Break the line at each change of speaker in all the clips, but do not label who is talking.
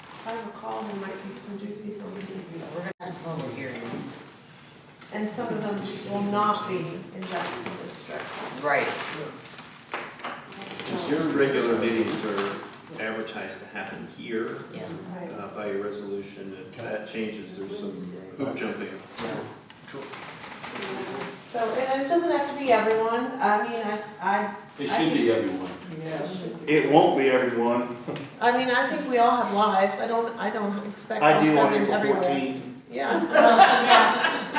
If I recall, there might be some doozies on the DV.
We're gonna have public hearings.
And some of them will not be in Jackson District.
Right.
If Your regular meetings are advertised to happen here
Yeah.
Right.
uh, by your resolution. If that changes, there's some hoop jumping.
So, and it doesn't have to be everyone, I mean, I, I.
It should be everyone.
Yeah.
It won't be everyone.
I mean, I think we all have lives, I don't, I don't expect
I
all
do on
seven
April
everywhere.
fourteenth.
Yeah,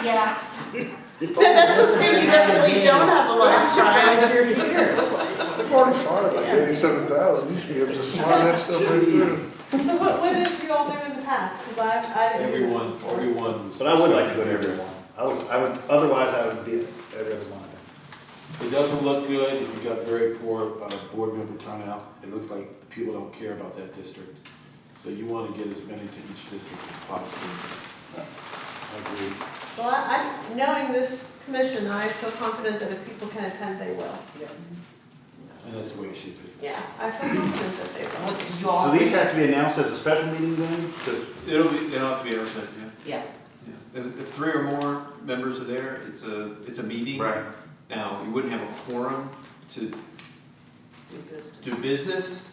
Yeah, yeah.
that's what's being, you definitely don't have a life, Brian.
you're here.
Part of fire, like eighty-seven thousand, you should be able to slide that stuff right through.
So what, what did you all do in the past? Cause I, I. didn't-
Everyone, everyone.
But I would like to go to everyone. I would, I would, otherwise I would be at everyone.
It doesn't look good if you got very poor uh, board member turnout. It looks like people don't care about that district. So you want to get as many to each district as possible. I agree.
Well, I, I, knowing this commission, I feel confident that if people can attend, they will.
And that's the way it should be.
Yeah. I feel confident that they will.
What, did you
So
all?
these have to be announced as a special meeting then? 'Cause
It'll be, they'll have to be advertised, yeah.
Yeah.
Yeah. If, if three or more members are there, it's a, it's a meeting.
Right.
Now, you wouldn't have a quorum to do business.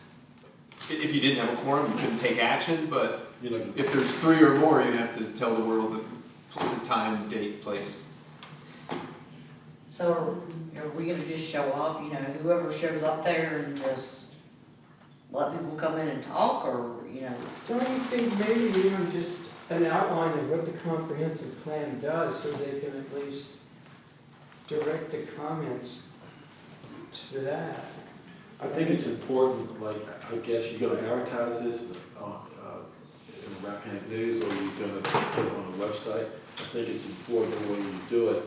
I- If you didn't have a quorum, you couldn't take action, but
You know,
if there's three or more, you have to tell the world the pl- the time, date, place.
So are we gonna just show up, you know, whoever shows up there and just let people come in and talk or, you know?
Don't you think maybe even just an outline of what the comprehensive plan does, so they can at least direct the comments to that?
I think it's important, like, I guess you're gonna advertise this on, uh, in the Rappahannock News, or you're gonna put it on the website. I think it's important when you do it,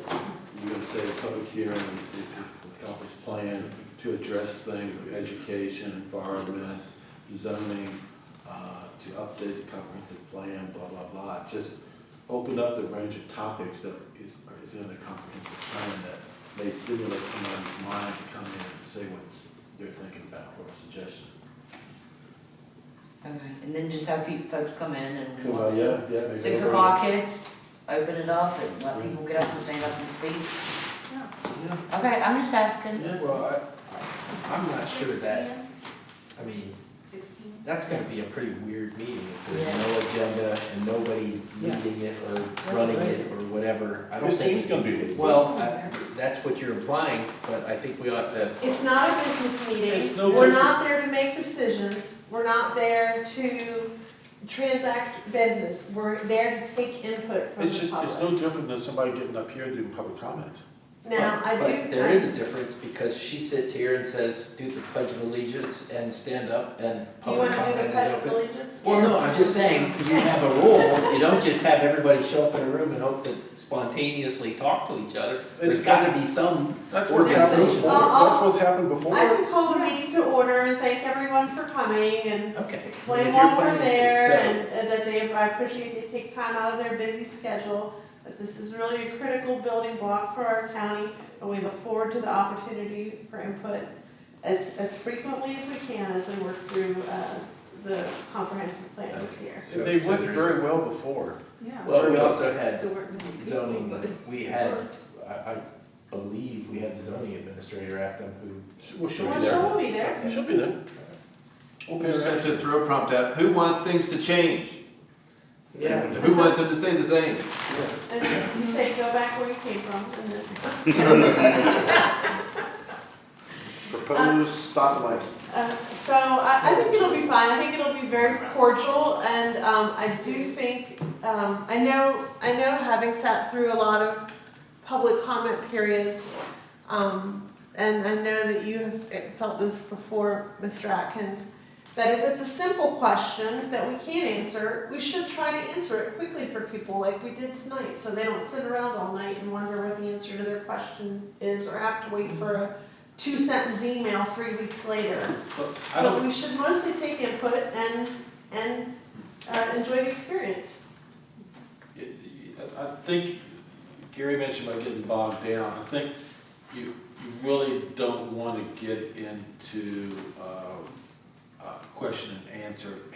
you're gonna say a public hearing, the Calvert's plan to address things like education, environment, zoning, uh, to update the comprehensive plan, blah, blah, blah. Just open up the range of topics that is, is in the comprehensive plan that may stimulate somebody's mind to come in and say what's they're thinking about or suggestion.
Okay. And then just have people, folks come in and once
yeah, yeah. make
six
it over.
o'clock hits, open it up and let people get up and stand up and speak. Okay, I'm just asking.
Yeah, well, I,
I'm not sure
Six
that,
p.m.,
I mean,
Six p.m.
that's gonna be a pretty weird meeting if there's
Yeah.
no agenda and nobody
Yeah.
leading it or running it or whatever. I don't think.
gonna be with
Well, I- that's what you're implying, but I think we ought to,
It's not a business meeting.
It's no
We're
different.
not there to make decisions. We're not there to transact business. We're there to take input from
It's
the
just, it's
public.
no different than somebody getting up here and doing public comment.
Now, I
but
do.
there is a difference because she sits here and says, do the pledge of allegiance and stand up and
I- Do you
public
want to do the
comment is
pledge of
open.
allegiance?
Well, no, I'm just saying, you have a rule, you don't just have everybody show up in a room and hope to spontaneously talk to each other. There's
It's-
gotta be some
That's what's happened
Organization.
before,
Uh-uh.
that's what's happened
I
before.
can call the meeting to order and thank everyone for coming and
Okay.
explain
If you're
why we're
planning to
there
accept-
and and that they, I appreciate they take time out of their busy schedule. That this is really a critical building block for our county and we look forward to the opportunity for input as, as frequently as we can as we work through, uh, the comprehensive plan this year.
And they went very well before.
Well, we also had zoning, we had, I, I believe we had the zoning administrator at them who.
She- Well, she'll be
Well,
there.
Sean will be there.
She'll be there. We'll pay her
Just have
extra.
to throw a prompt out, who wants things to change?
Yeah.
Who wants them to stay the same?
And then you say, go back where you came from. And then,
Proposed stoplight.
uh, So I, I think it'll be fine. I think it'll be very cordial. And um, I do think, um, I know, I know having sat through a lot of public comment periods, um, and I know that you have eh, felt this before, Mr. Atkins, that if it's a simple question that we can't answer, we should try to answer it quickly for people like we did tonight, so they don't sit around all night and wonder what the answer to their question is or have to wait for a two sentence email three weeks later.
But I
But
don't,
we should mostly take input and, and uh, enjoy the experience.
I- I think Gary mentioned about getting bogged down. I think you, you really don't want to get into, uh, uh, question and answer